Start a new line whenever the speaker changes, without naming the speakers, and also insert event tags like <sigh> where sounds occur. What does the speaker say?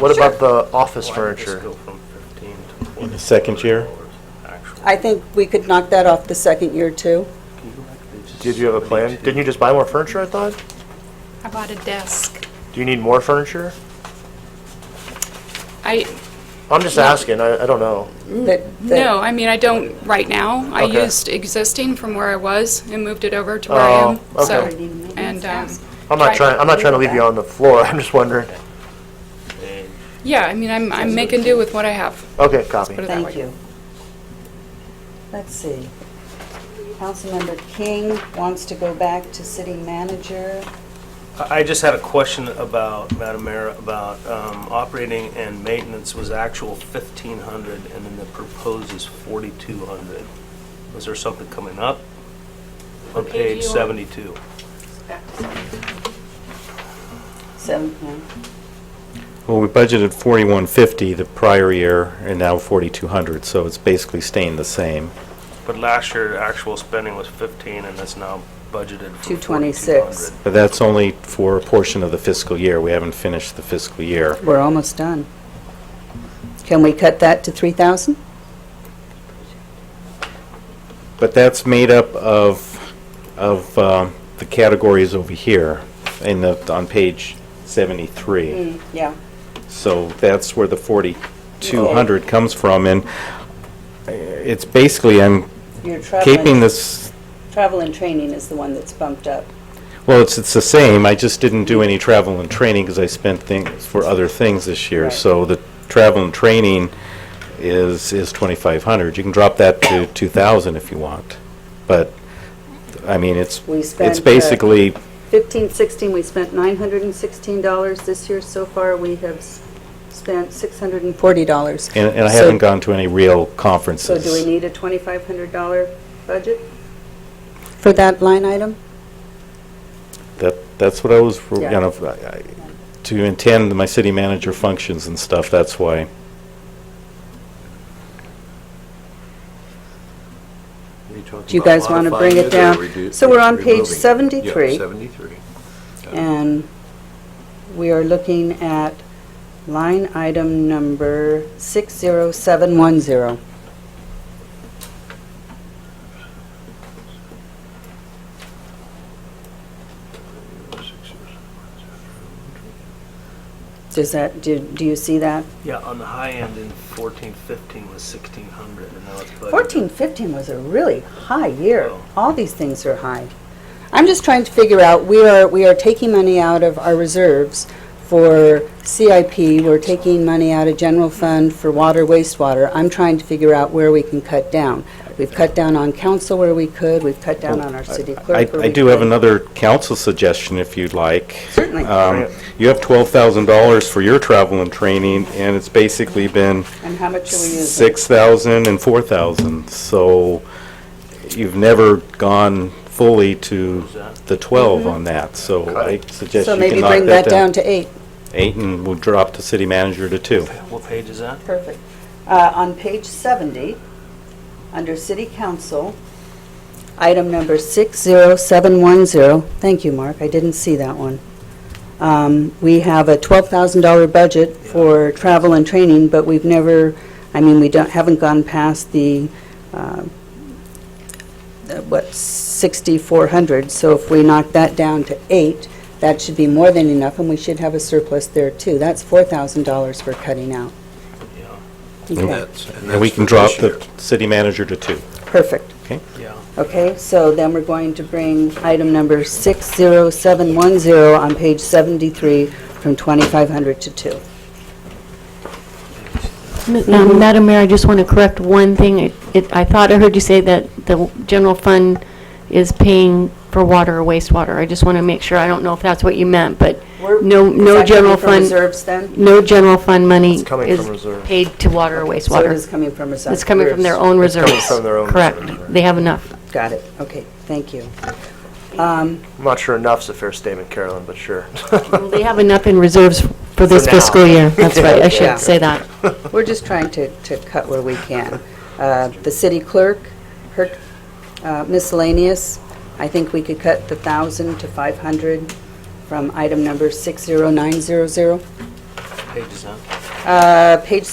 What about the office furniture?
In the second year?
I think we could knock that off the second year, too.
Did you have a plan? Didn't you just buy more furniture, I thought?
I bought a desk.
Do you need more furniture?
I,
I'm just asking, I, I don't know.
That- that-
Mm. no, I mean, I don't right now. I
Okay.
used existing from where I was and moved it over to where I am.
Oh,
So,
okay.
And, um,
I'm not trying, I'm not trying to leave you on the floor, <laughs> I'm just wondering.
yeah, I mean, I'm, I'm making do with what I have.
Okay, copy.
Put it that
Thank
way.
you. Let's see. Councilmember King wants to go back to city manager.
I I just had a question about, Madam Mayor, about um, operating and maintenance was actual 1,500, and then the proposed is 4,200. Was there something coming up? On
page
page
you on?
72.
Seven,
Mm-hmm.
yeah.
Well, we budgeted 4150 the prior year, and now 4200, so it's basically staying the same.
But last year, actual spending was 15, and that's now budgeted for
226.
4,200.
But that's only for a portion of the fiscal year. We haven't finished the fiscal year.
we're almost done. Can we cut that to 3,000?
But that's made up of, of um, the categories over here in the, on page 73.
Yeah.
So that's where the 4,200 comes from, and uh, it's basically, I'm
Your travel
keeping
and-
this,
Travel and training is the one that's bumped up.
well, it's, it's the same, I just didn't do any travel and training because I spent things for other things this year.
Right.
So the travel and training is, is 2,500. You can drop that to 2,000 if you want, but, I mean, it's,
We spent,
it's
uh,
basically
15, 16, we spent $916. This year so far, we have s- spent $640.
And, and I
So-
haven't gone to any real conferences.
So do we need a $2,500 budget? For that line item?
That, that's what I was, you
Yeah.
know, I- I- to attend my city manager functions and stuff, that's why.
Do you guys want to bring it down? So we're on page 73.
73.
And we are looking at line item number 60710. Does that, do do you see that?
Yeah, on the high end, in 14, 15 was 1,600, and now it's budgeted.
14, 15 was a really high year.
Oh.
All these things are high. I'm just trying to figure out, we are, we are taking money out of our reserves for CIP, we're taking money out of general fund for water, wastewater. I'm trying to figure out where we can cut down. We've cut down on council where we could, we've cut down on our city
Oh, I,
clerk where
I
we
do have
could.
another council suggestion if you'd like.
Certainly.
Um, You have twelve thousand dollars for your travel and training, and it's basically been
And how much are we using?
six thousand and four thousand, so you've never gone fully to the twelve on that, so I suggest
Mm-hmm. So
you can
maybe
knock
bring that down to eight.
Eight, and we'll drop the city manager to two.
What page is that?
Perfect. Uh, On page 70, under City Council, item number 60710, thank you, Mark, I didn't see that one. Um, We have a $12,000 budget for travel and training, but we've never, I mean, we don't, haven't gone past the, uh, uh, what, 6,400, so if we knock that down to eight, that should be more than enough, and we should have a surplus there, too. That's $4,000 we're cutting out.
Yeah,
Okay,
And we can drop the city manager to two.
perfect.
yeah.
Okay, so then we're going to bring item number 60710 on page 73 from 2,500 to 2. Mm-hmm.
Um, Madam Mayor, I just want to correct one thing. It- it- I thought I heard you say that the general fund is paying for water or wastewater. I just want to make sure, I don't know if that's what you meant, but
We're-
no,
Is
no
that coming
general
from
fund,
reserves then?
no general fund money
It's coming from
is
reserve.
paid to water or
So it is
wastewater.
coming from reserves.
It's coming from their own
It's
reserves.
coming from their own reserves,
Correct.
right.
They have enough.
Got it, okay, thank you.
I'm not sure enough's a fair statement, Carolyn, but sure.
Well, They have enough in reserves for this
now.
fiscal year. That's right,
Yeah.
I should say that.
We're just trying to, to cut where we can. Uh, The city clerk, her uh, miscellaneous, I think we could cut the 1,000 to 500 from item number 60900.
page is that?
Uh, Page